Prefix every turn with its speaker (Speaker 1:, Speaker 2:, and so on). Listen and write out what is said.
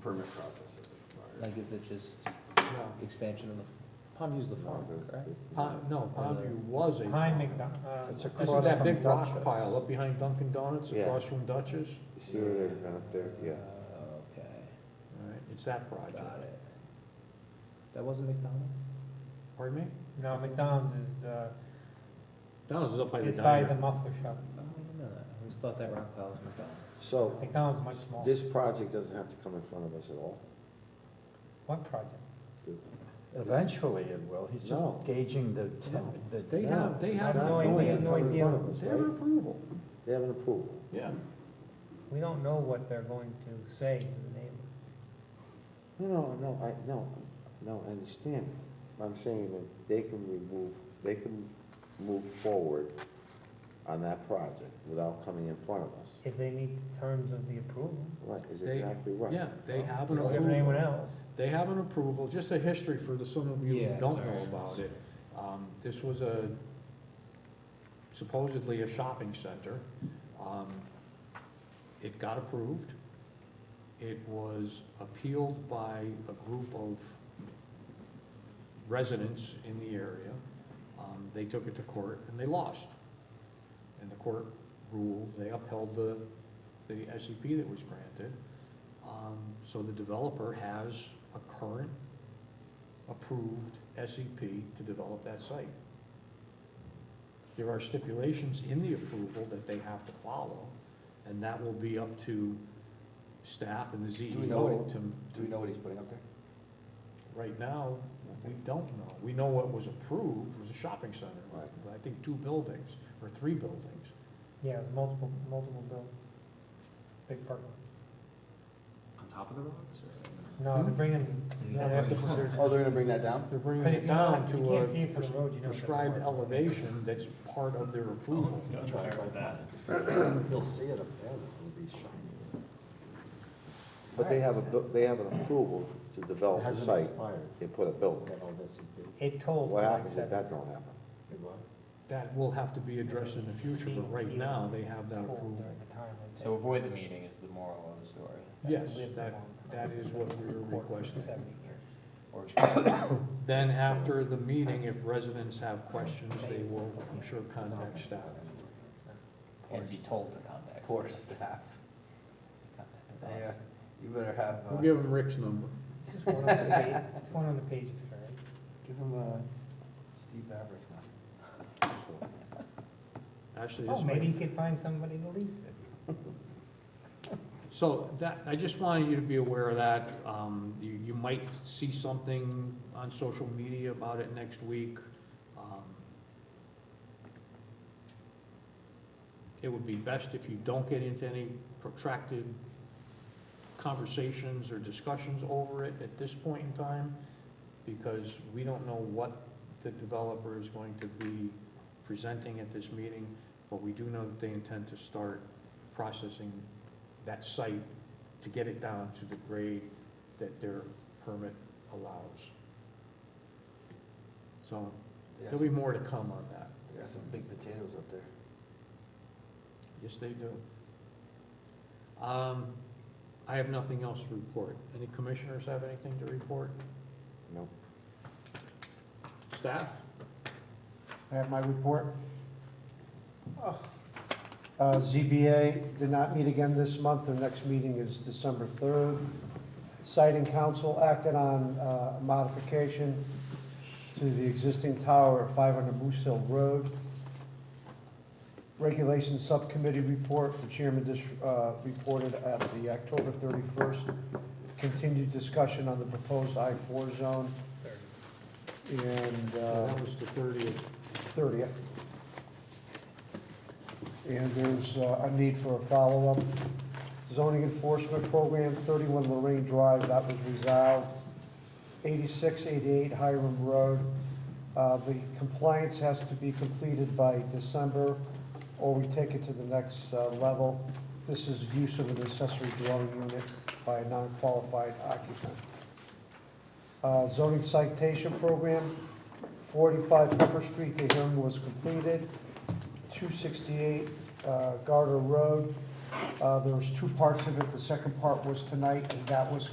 Speaker 1: permit process is required.
Speaker 2: Like, is it just
Speaker 3: No,
Speaker 2: expansion of the, Pondview's the farm, correct?
Speaker 3: Pond, no, Pondview
Speaker 4: Uh,
Speaker 3: was a.
Speaker 4: Behind
Speaker 3: farm.
Speaker 4: McDonald, uh,
Speaker 5: It's
Speaker 4: isn't
Speaker 5: across
Speaker 3: That
Speaker 5: from
Speaker 3: big rock
Speaker 5: Dutchess.
Speaker 3: pile up behind Dunkin' Donuts,
Speaker 5: Yeah.
Speaker 3: across from Dutch's,
Speaker 5: You see where they've been up there, yeah.
Speaker 2: Uh, Okay,
Speaker 3: Alright, it's that project.
Speaker 4: Uh,
Speaker 2: got it. That wasn't McDonald's?
Speaker 3: Pardon me?
Speaker 4: No, McDonald's is, uh,
Speaker 3: Donald's is up by the
Speaker 4: is by the
Speaker 3: diner.
Speaker 4: muffler shop.
Speaker 2: Oh, I didn't know that. I always thought that rock pile was McDonald's.
Speaker 5: So
Speaker 4: McDonald's is much smaller.
Speaker 5: this project doesn't have to come in front of us at all?
Speaker 4: What project?
Speaker 6: Eventually it will, he's just
Speaker 5: No.
Speaker 6: gauging the, te-
Speaker 3: No.
Speaker 6: the.
Speaker 3: They have, they have,
Speaker 4: No,
Speaker 5: Not
Speaker 4: idea,
Speaker 5: going to
Speaker 4: no
Speaker 5: come in
Speaker 4: idea.
Speaker 5: front of us,
Speaker 3: they have an
Speaker 5: right?
Speaker 3: approval,
Speaker 5: They have an approval.
Speaker 3: yeah.
Speaker 4: We don't know what they're going to say to the neighbor.
Speaker 5: No, no, no, I, no, no, I understand. I'm saying that they can remove, they can move forward on that project without coming in front of us.
Speaker 4: If they meet the terms of the approval,
Speaker 5: Right, is
Speaker 3: They-
Speaker 5: exactly right.
Speaker 3: Yeah, they have an
Speaker 4: like anyone
Speaker 3: approval,
Speaker 4: else.
Speaker 3: they have an approval, just a history for the, some of you
Speaker 2: Yeah,
Speaker 3: who don't
Speaker 2: sorry.
Speaker 3: know about it. Um, this was a supposedly a shopping center. Um, it got approved. It was appealed by a group of residents in the area. Um, they took it to court and they lost. And the court ruled, they upheld the, the SEP that was granted. Um, so the developer has a current approved SEP to develop that site. There are stipulations in the approval that they have to follow, and that will be up to staff and the
Speaker 1: Do we know
Speaker 3: ZEO
Speaker 1: what-
Speaker 3: to,
Speaker 1: Do we know what he's putting up there?
Speaker 3: right now, we don't know. We know what was approved was a shopping center,
Speaker 5: Right.
Speaker 3: I think two buildings, or three buildings.
Speaker 4: Yeah, it's multiple, multiple bill. Big parking.
Speaker 1: On top of the rocks or?
Speaker 4: No, they're
Speaker 3: Hmm?
Speaker 4: bringing,
Speaker 3: Now they have to put their-
Speaker 1: Oh, they're gonna bring that down?
Speaker 3: They're bringing
Speaker 4: But if
Speaker 3: it
Speaker 4: you're
Speaker 3: down
Speaker 4: not- if you
Speaker 3: to
Speaker 4: can't see it
Speaker 3: a
Speaker 4: from the road, you
Speaker 3: pres-
Speaker 4: know it Oh, doesn't
Speaker 3: prescribed
Speaker 4: work.
Speaker 3: elevation that's part of their
Speaker 6: Oh,
Speaker 3: approval.
Speaker 6: He'll see it up there, it'll be shiny.
Speaker 5: But they have a, bu- they have an approval to
Speaker 1: Oh,
Speaker 5: develop the
Speaker 6: Hasn't
Speaker 5: site.
Speaker 6: expired,
Speaker 5: They put a building.
Speaker 6: that all this would be.
Speaker 4: it told for
Speaker 5: What
Speaker 4: like
Speaker 5: happens if
Speaker 4: seven.
Speaker 5: that don't happen?
Speaker 6: It what?
Speaker 3: That will have to be addressed in the future, but right now, they have that
Speaker 4: told
Speaker 3: approval.
Speaker 4: During the time. I
Speaker 1: So
Speaker 4: think.
Speaker 1: avoid the meeting is the moral of the story,
Speaker 3: Yes,
Speaker 4: Lived a long
Speaker 3: that-
Speaker 4: time.
Speaker 3: that is what we were
Speaker 4: Court for
Speaker 3: requesting.
Speaker 4: 70 years.
Speaker 1: or expand.
Speaker 3: Then after the meeting, if residents have questions, they will, I'm sure, contact staff.
Speaker 1: Uh, and be told to contact. Poor staff. Yeah, you better have, uh,
Speaker 3: We'll give them Rick's number.
Speaker 4: It's just one on the page, it's one on the page, it's fair.
Speaker 1: give them, uh, Steve Maverick's number.
Speaker 3: Actually,
Speaker 4: Oh,
Speaker 3: this
Speaker 4: maybe
Speaker 3: might,
Speaker 4: you could find somebody to lease it.
Speaker 3: so that, I just wanted you to be aware of that. Um, you, you might see something on social media about it next week. Um, It would be best if you don't get into any protracted conversations or discussions over it at this point in time, because we don't know what the developer is going to be presenting at this meeting, but we do know that they intend to start processing that site to get it down to the grade that their permit allows. So there'll be more to come on that.
Speaker 1: They got some big potatoes up there.
Speaker 3: Yes, they do. Um, I have nothing else to report. Any commissioners have anything to report?
Speaker 5: No.
Speaker 3: Staff?
Speaker 6: I have my report. Uh, ZBA did not meet again this month, their next meeting is December 3rd. Siting Council acted on uh, modification to the existing tower at 500 Moose Hill Road. Regulations Subcommittee report, the chairman dis- uh, reported at the October 31st, continued discussion on the proposed I-4 zone. And. uh,
Speaker 3: That was the thirtieth.
Speaker 6: 30th. And there's uh, a need for a follow-up. Zoning enforcement program, 31 Lorraine Drive, that was resolved. 86, 88 Hiram Road, uh, the compliance has to be completed by December, or we take it to the next uh, level. This is use of an accessory dwelling unit by a non-qualified occupant. Uh, Zoning citation program, 45 Pepper Street, the hearing was completed. 268 uh, Garter Road, uh, there was two parts of it. The second part was tonight, and that was